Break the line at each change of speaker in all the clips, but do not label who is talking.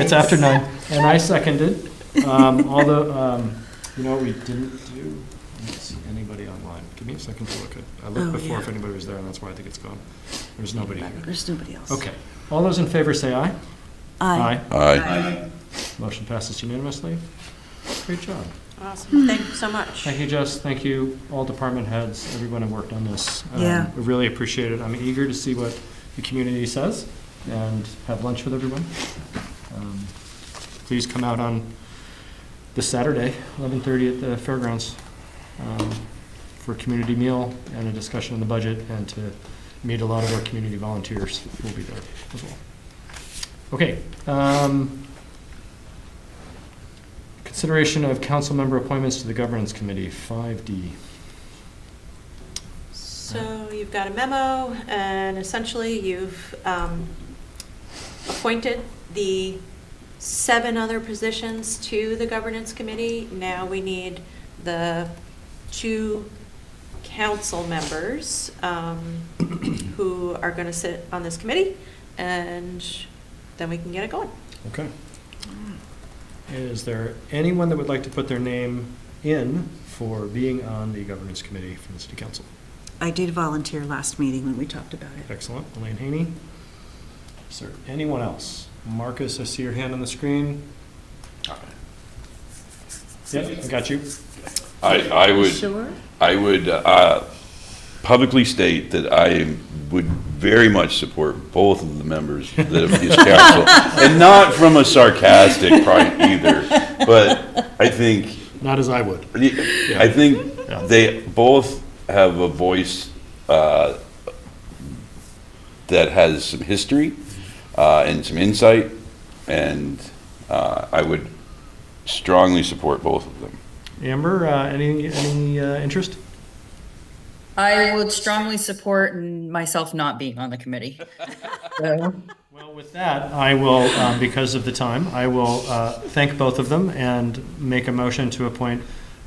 It's after nine. And I seconded, um, although, um, you know, what we didn't do, I don't see anybody online. Give me a second to look at, I
Oh,
looked before
yeah.
if anybody was there, and that's why I think it's gone. There's nobody here.
There's nobody else.
Okay. All those in favor say aye.
Aye.
Aye.
Motion passes unanimously. Great job.
Awesome, thank you so much.
Thank you, Jess. Thank you, all department heads, everyone who worked on this. Um,
Yeah.
I really appreciate it. I'm eager to see what the community says and have lunch with everyone. Um, Please come out on this Saturday, 11:30 at the fairgrounds, um, for a community meal and a discussion on the budget and to meet a lot of our community volunteers who will be there as well. Okay. um, Consideration of council member appointments to the governance committee, 5D.
So you've got a memo, and essentially you've um, appointed the seven other positions to the governance committee. Now we need the two council members um, who are going to sit on this committee, and then we can get it going.
Okay. Is there anyone that would like to put their name in for being on the governance committee from the city council?
I did volunteer last meeting when we talked about it.
Excellent. Elaine Haney? Is there anyone else? Marcus, I see your hand on the screen. Yep, I got you.
I, I would,
Sure.
I would uh, publicly state that I would very much support both of the members that of this council. And not from a sarcastic point either, but I think,
Not as I would.
I
Yeah.
think they both have a voice uh, that has some history uh, and some insight, and uh, I would strongly support both of them.
Amber, uh, any, any uh, interest?
I would strongly support n- myself not being on the committee.
Well, with that, I will, um, because of the time, I will uh, thank both of them and make a motion to appoint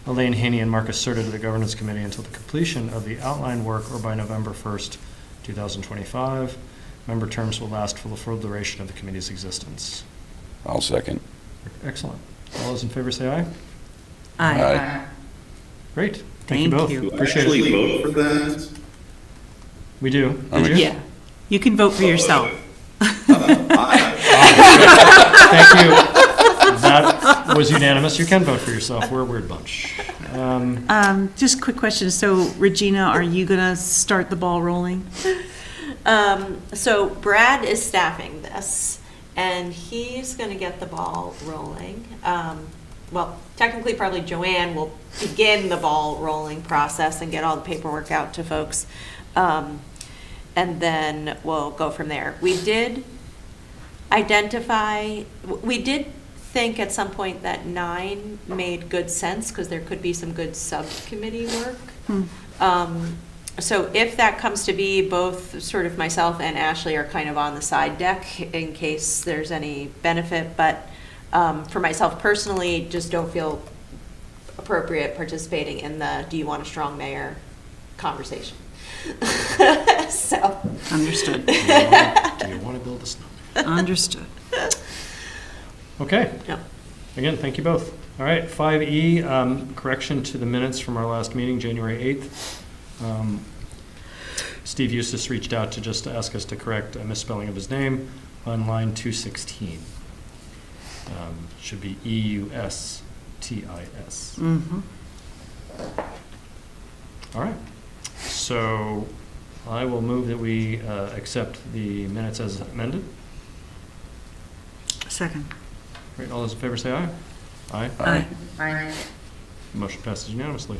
Elaine Haney and Marcus Serta to the Governance Committee until the completion of the outline work or by November 1st, 2025. Member terms will last for the full duration of the committee's existence.
I'll second.
Excellent. All those in favor say aye.
Aye.
Aye.
Great. Thank you
Thank
both.
you. Do
Appreciate it.
vote for that?
We do.
I'm
Did you?
ex-
Yeah. You can vote for yourself.
Thank you. That was unanimous. You can vote for yourself. We're a weird bunch. Um,
Um, just quick question. So Regina, are you gonna start the ball rolling?
Um, so Brad is staffing this, and he's gonna get the ball rolling. Um, well, technically, probably Joanne will begin the ball rolling process and get all the paperwork out to folks. Um, and then we'll go from there. We did identify, w- we did think at some point that nine made good sense, because there could be some good subcommittee work. Um, So if that comes to be, both sort of myself and Ashley are kind of on the side deck in case there's any benefit, but um, for myself personally, just don't feel appropriate participating in the, do you want a strong mayor conversation? So,
Understood,
Do you wanna- do you want to build a snowman?
understood.
Okay.
no.
Again, thank you both. All right, five E, um, correction to the minutes from our last meeting, January eighth. Um, Steve Eustace reached out to just to ask us to correct a misspelling of his name on line two sixteen. Should be E U S T I S.
Mm-hmm.
All right, so I will move that we, uh, accept the minutes as amended.
Second.
All right, all those in favor say aye. Aye.
Aye.
Aye.
Motion passes unanimously.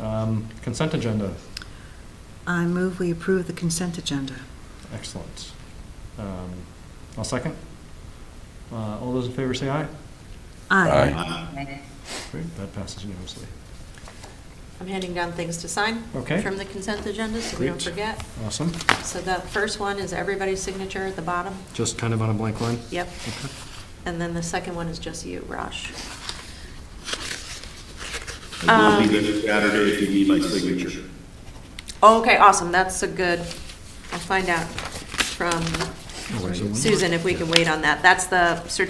Um, Consent agenda.
I move we approve the consent agenda.
Excellent. Um, I'll second. Uh, All those in favor say aye.
Aye.
Great, that passes unanimously.
I'm handing down things to sign
Okay.
from the consent agenda, so we don't
Great.
forget.
Awesome.
So the first one is everybody's signature at the bottom.
Just kind of on a blank line.
Yep.
Okay.
And then the second one is just you, Raj.
I'll
Um,
be there Saturday if you need my signature.
oh, Okay, awesome, that's a good, I'll find out from
Oh, wait, so one more.
Susan if we can wait on that. That's the certificate